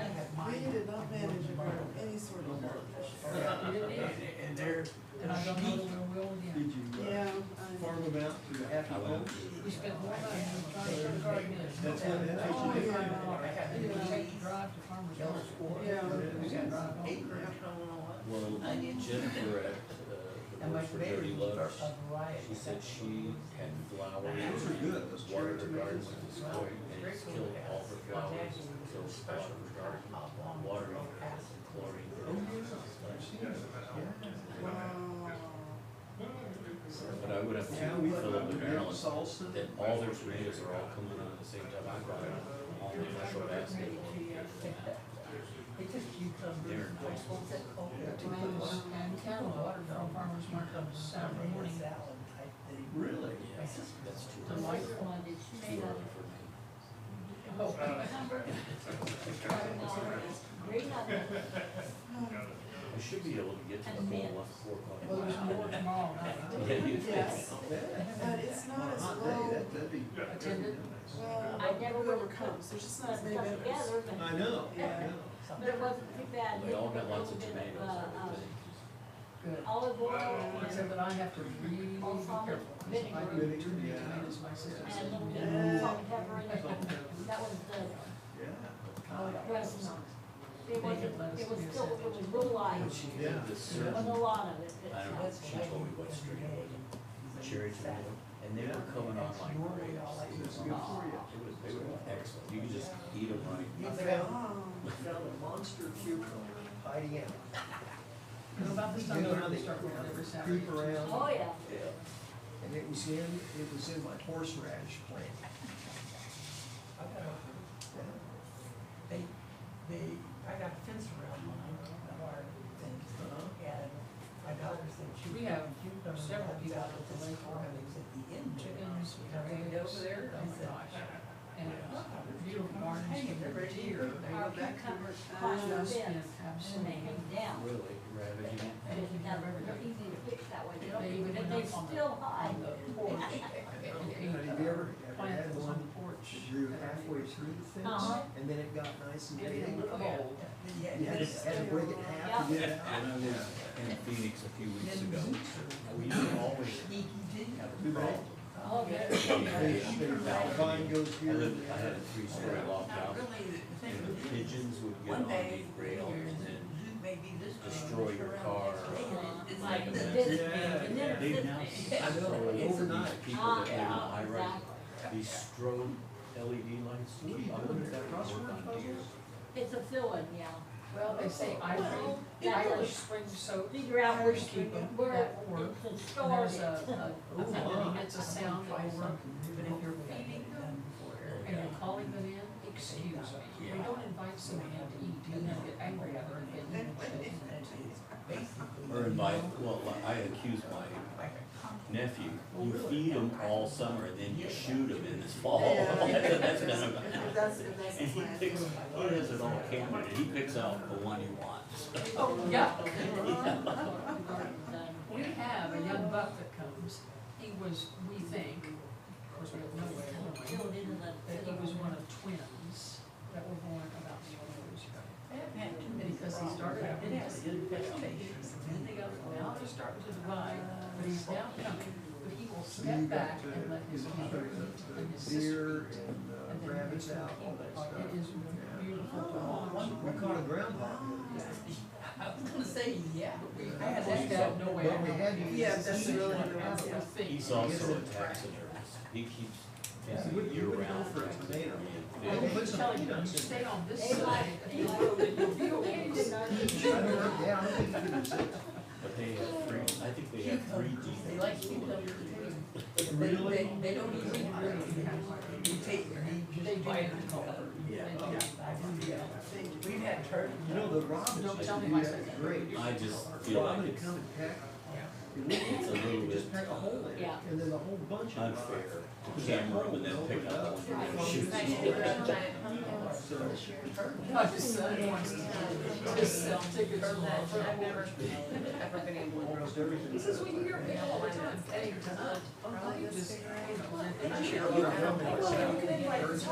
you did not manage a girl, any sort of partnership. And there, And I don't know where we'll did again. you Yeah, uh, farm them out to happy homes? We spent more money on trying to start gardening. That's what- that's what you do. You know, take the drive to farmer's market. Yeah. We can drive home. Well, Jennifer at, uh, the And my Works for Dirty baby was Loves, a variety. she said she had flowers, Those are good, those cherry watered her garden tomatoes. with this spray, and it's killed all her flowers, so it's watered her garden, watering it with chlorine. wow. But I would have Now we to put fill up up the the ground balance, salsa. that all their tomatoes are all coming on at the same time, I brought them all in a short basket. It's just cucumbers. They're nice. What's it called? Tomatoes and town water from farmer's market on Saturday morning. Salad type thing. Really? Yeah, that's too The early, white one is too made early of for me. Oh, Green onion, I should be able to get to the And bowl mint. at four o'clock. Well, there's more tomorrow night. Yeah, you think? Yes, Yeah. but it's not as Hot day, well, that, that'd be. that'd be Attended. nice. well, whoever comes, there's just not as many stuck vendors. together, I but, know, I Yeah. know. but it wasn't too bad. They all got Little lots of bit of, tomatoes, uh, I would um, think. Good. Olive oil Except and that I have to really be careful, because if I do Vinegar. too many tomatoes, my sister and a said. little bit Yeah. of salt and pepper in it. That was Yeah. the dressing. It wasn't, it was still a little But light she- Yeah. The with certain, a lot of it. but, I don't uh, know, she told me what street it was, cherry tomato, and they were coming on like grapes. It It's was, good for you. it was- they were excellent, you could just eat them right. You found, Wow. you found a monster cucumber hiding out. And About this time, You know how around, they they start going out every Saturday. creep around? Oh, yeah. Yeah. And it was in, it was in my horseradish plant. Uh-huh. They, they, I got a fence around mine, a wire fence, and my daughter said she. We have cucumber several comes people out at of the this lake farm, and it's at the end. Chickens, And I went potatoes, over there, oh and I my said, gosh. And beautiful gardens, and they're deer, they Our go back cucumbers to caught the just been fence and they absolutely. hang down. Really, ravaging. And it's not very easy to fix that way, They even but they went up on the- still hide. on the porch. They Have you ever, ever plant had that was on one the porch. that grew halfway through the fence? Uh-huh. And then it got nice and And big? it looked old. You Yeah, had and to, it's- had to break it in half to get it out? And I was in Phoenix a few weeks ago, we used to always Sneaky deal. have a problem. Oh, yeah. They- Yeah. they- the vine goes I here and lived, I had there. a three-story loft Not house, really the thing and with the it. pigeons would get One on day, the rail and then maybe this way, destroy your around car. this way, and it's Uh, Like like the this. this Yeah, big, and then it's They've this now big. I know, Overnight. overnight, people that live in Ah, high rise, exactly. these strobe LED lights, what do you do with that work on deer? It's a fill-in, yeah. Well, they say Irish, Well, that Irish was- spring soap. Figure out where, Irish keep 'em. where That will work. it's And stored. there's a, a, wow. it's a sound over, but if you're feeding them and you're calling them in, excuse me. We don't invite somebody in to eat, you know, get angry at them and get them. Or invite, well, I accused my nephew, you feed them all summer and then you shoot them in the fall. Yeah. Oh, That's kind of- That's, that's And his he plan. picks, he has it all camera, and he picks out the one he wants. Oh, yeah. We have a young buck that comes, he was, we think, of course, we have no way of knowing, Filled in the. that he was one of twins that were born about twelve years ago. And because he started out in this vegetation, and then they got, now they're starting to divide, but he's now coming, but he will So you step back got the, and let his mother eat and his the sister deer eat. and And the then rabbits he's out, all that like, It stuff. is beautiful Oh, to watch. We caught a groundhog the other day. I was gonna say, yeah. I had that guy, no way. But we had to use Yeah, the that's seed really one. what I would think. He's also a taxidermist, he keeps, Yeah, he's you a would- you would go year-round for a taxidermy. I and tomato. fish. was telling you, you stay on this They side, like- you know, that you'll be okay. I don't know, yeah, I don't think you could have said. But they have three, I think they have three Cucumbers, they like deep. cucumbers too. They, Really? they, they don't even really, you take, you They just do bite it in it. color. Yeah. They I do. do, yeah. We've had turkey. You know, the robins Don't used tell to me do my that secret. great. I just feel Robin like would it's come and peck. It's a little You'd just bit peck a hole in it, Yeah. and then a whole bunch of. unfair to camera and then pick up one and shoot Right. it. So, My son wants to just sell tickets to love. almost everything. He says, we hear people all the time, hey, tonight, oh, you just, you know, You're a you're- helmet. Well, you can invite